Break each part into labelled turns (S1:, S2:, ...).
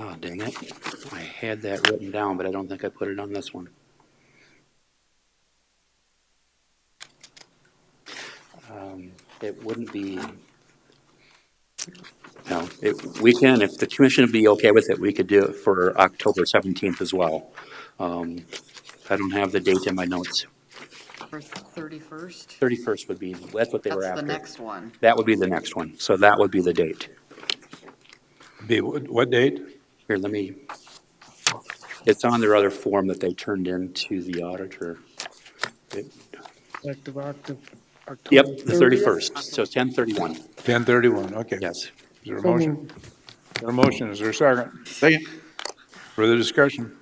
S1: Oh, dang it. I had that written down, but I don't think I put it on this one. Um, It wouldn't be, no, it, we can, if the commission would be okay with it, we could do it for October 17th as well. Um, I don't have the date in my notes.
S2: For 31st?
S1: 31st would be, that's what they were
S2: That's the
S1: after.
S2: next one.
S1: That would be the next one. So that would be the date.
S3: Be, what what date?
S1: Here, let me, it's on their other form that they turned in to the auditor. It-
S4: Effective October.
S1: Yep, the 31st, so 10:31,
S3: 10:31, okay. Is
S1: yes.
S3: there a motion? Is there a motion, is there a second?
S5: Second.
S3: Further discussion?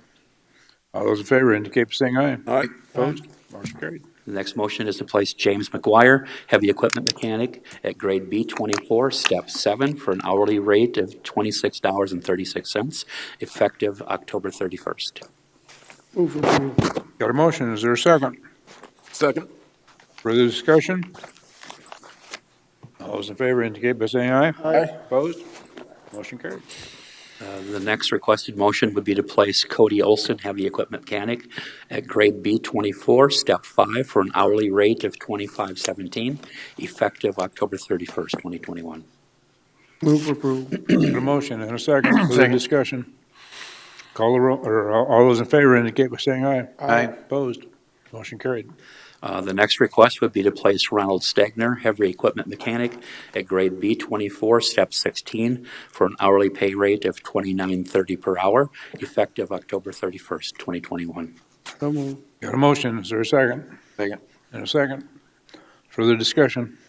S3: All those in favor indicate by saying aye.
S5: All right.
S3: Opposed? Motion carried.
S1: The next motion is to place James McGuire, heavy equipment mechanic, at grade B24, step 7, for an hourly rate of $26.36, effective October 31st.
S4: Move approval.
S3: Got a motion, is there a second?
S5: Second.
S3: Further discussion? All those in favor indicate by saying aye.
S4: Aye.
S3: Opposed? Motion carried.
S1: Uh, The next requested motion would be to place Cody Olson, heavy equipment mechanic, at grade B24, step 5, for an hourly rate of $25.17, effective October 31st, 2021.
S4: Move approval.
S3: Got a motion and a second, further discussion? Call the roll, or all all those in favor indicate by saying aye.
S5: Aye.
S3: Opposed? Motion carried.
S1: Uh, The next request would be to place Ronald Stegner, heavy equipment mechanic, at grade B24, step 16, for an hourly pay rate of $29.30 per hour, effective October 31st, 2021.
S4: So move.
S3: Got a motion, is there a second?
S5: Second.
S3: And a second. Further discussion?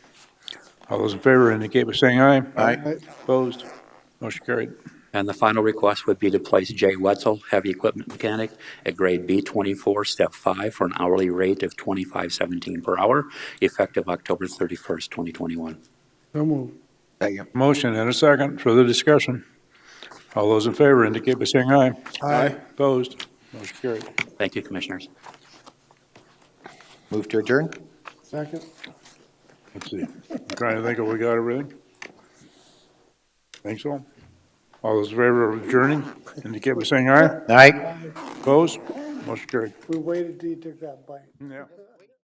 S3: All those in favor indicate by saying aye.
S4: Aye.
S3: Opposed? Motion carried.
S1: And the final request would be to place Jay Wetzel, heavy equipment mechanic, at grade B24, step 5, for an hourly rate of $25.17 per hour, effective October 31st, 2021.
S4: So move.
S5: Second.
S3: Motion and a second, further discussion. All those in favor indicate by saying aye.
S5: Aye.
S3: Opposed? Motion carried.
S1: Thank you, Commissioners.
S5: Move to adjourn?
S4: Second.
S3: Let's see, I'm trying to think if we got everything. Think so? All those in favor of adjourning indicate by saying aye.
S5: All right.
S3: Opposed? Motion carried.
S4: We waited till you took that bite.
S3: Yeah.